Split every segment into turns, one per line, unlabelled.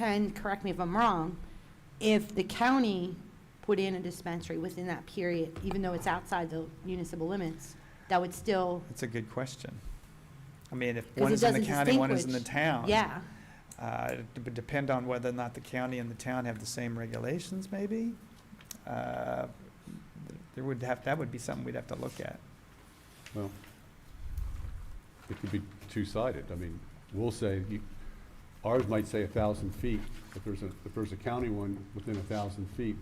Ken, correct me if I'm wrong, if the county put in a dispensary within that period, even though it's outside the municipal limits, that would still,
That's a good question. I mean, if
'Cause
one
it
is in the
doesn't
county, one is in the
distinguish.
town.
yeah.
Uh, It would depend on whether or not the county and the town have the same regulations, maybe. Uh, There would have, that would be something we'd have to look at.
Well, it could be two-sided. I mean, we'll say, you- ours might say a thousand feet. If there's a, if there's a county one within a thousand feet,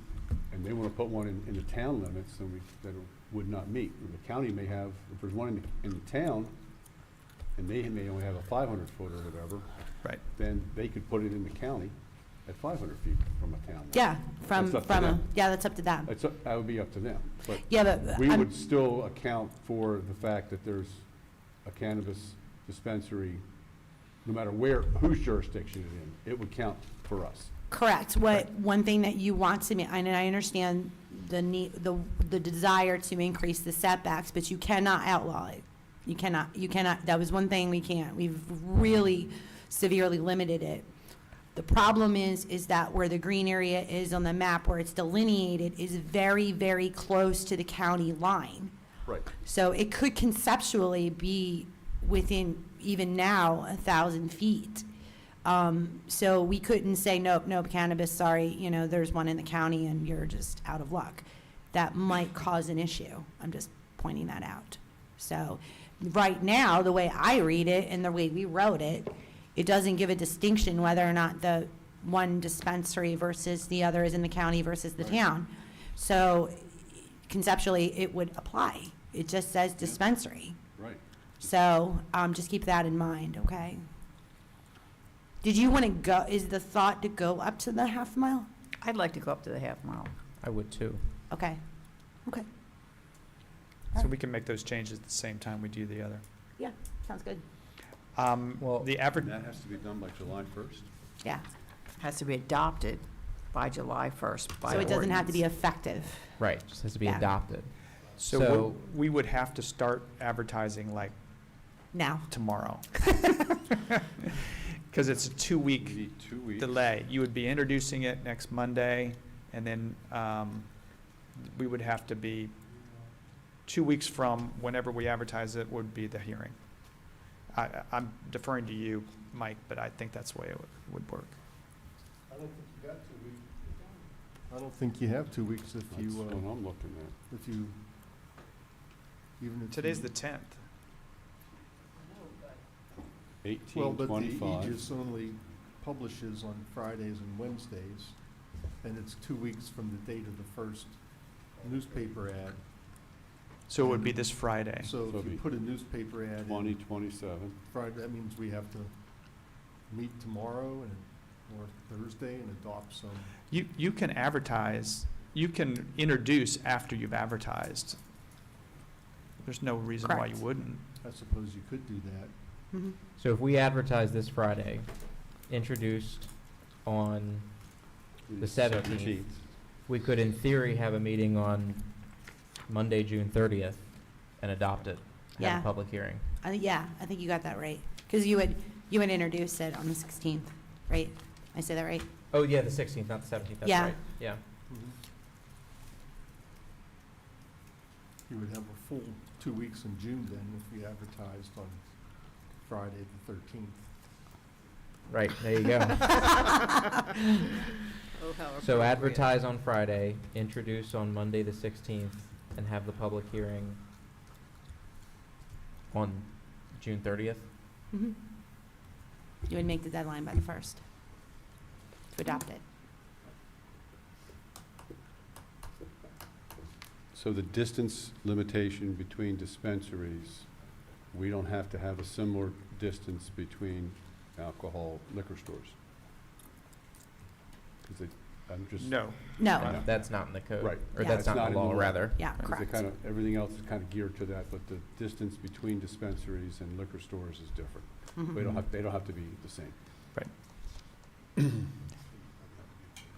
and they want to put one in, in the town limits, then we, that would not meet. Or The county may have, if there's one in, the- in the town, and they may only have a five hundred foot or whatever,
Right.
then they could put it in the county at five hundred feet from a town. limit.
Yeah, from,
That's up to
from, a-
them.
yeah, that's up to them.
That's, up- that would be up to them, but
Yeah, but,
we
I'm-
would still account for the fact that there's a cannabis dispensary, no matter where, whose jurisdiction it's in, it would count for us.
correct. What, one thing that you want to, ma- and I understand the need, the, the desire to increase the setbacks, but you cannot outlaw it. You cannot, you cannot, that was one thing we can't. We've really severely limited it. The problem is, is that where the green area is on the map, where it's delineated, is very, very close to the county line.
Right.
So it could conceptually be within, even now, a thousand feet. Um, so we couldn't say, nope, nope, cannabis, sorry, you know, there's one in the county and you're just out of luck. That might cause an issue. I'm just pointing that out. So, right now, the way I read it and the way we wrote it, it doesn't give a distinction whether or not the one dispensary versus the other is in the county versus the town. So conceptually, it would apply. It just says dispensary.
Right.
So um, just keep that in mind, okay? Did you want to go, is the thought to go up to the half mile?
I'd like to go up to the half mile.
I would too.
Okay, okay,
So we can make those changes at the same time we do the other.
sounds good.
Um,
Well-
The average,
And that has to be done by July first?
Yeah,
Has to be adopted by July 1st by
so it doesn't have to be
ordinance.
effective.
Right, just has to be
Yeah.
adopted.
so
So-
we- we would have to start advertising like
Now,
tomorrow. Because it's a two-week
need two weeks.
delay. You would be introducing it next Monday, and then um, we would have to be, two weeks from whenever we advertise it would be the hearing. I- I, I'm deferring to you, Mike, but I think that's the way it would- would work.
I don't think you got two weeks. I don't think you have two weeks if
That's
you,
what
uh,
I'm looking at.
if you, even if.
Today's
you-
the 10th.
Eighteen,
Well, but the
twenty-five.
Aegis only publishes on Fridays and Wednesdays, and it's two weeks from the date of the first newspaper ad.
So it would be this Friday.
So
So
if
it'll be
you put a newspaper ad
Twenty,
in
twenty-seven.
Friday, that means we have to meet tomorrow and, or Thursday and adopt some.
You, you can advertise, you can introduce after you've advertised. There's no reason why you
Correct.
wouldn't.
I suppose you could do that.
Mhm.
So if we advertise this Friday, introduced on, The 17th. we could in theory have a meeting on Monday, June thirtieth, and adopt it. Have
Yeah.
a public hearing.
I thi- yeah, I think you got that right. Because you would, you would introduce it on the 16th, right? I say that right?
Oh, yeah, the sixteenth, not the seventeenth, that's
Yeah.
right. Yeah.
Mm-hmm. You would have a full two weeks in June then if you advertised on Friday the thirteenth.
Right, there you go. So advertise on Friday, introduce on Monday, the sixteenth, and have the public hearing on June thirtieth?
Mhm. You would make the deadline by the 1st to adopt it.
So the distance limitation between dispensaries, we don't have to have a similar distance between alcohol liquor stores? Is it, I'm just.
No.
No,
Yeah.
That's not in the code.
Right.
Or
Yeah.
that's
It's
not
not
in
in
the law,
the law.
rather.
yeah,
Because
correct.
they kind of, everything else is kind of geared to that, but the distance between dispensaries and liquor stores is different.
Mhm.
We don't have, they don't have to be the same.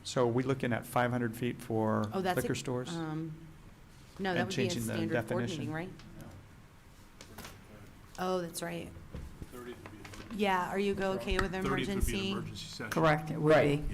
So are we looking at 500 feet for
Oh, that's
liquor
ex-
stores?
Um, No,
And
that would be a
changing the
standard board
definition.
meeting, right? Oh, that's right.
Thirty would be
Yeah, are you go okay with emergency?
Correct, it would
Right.
be.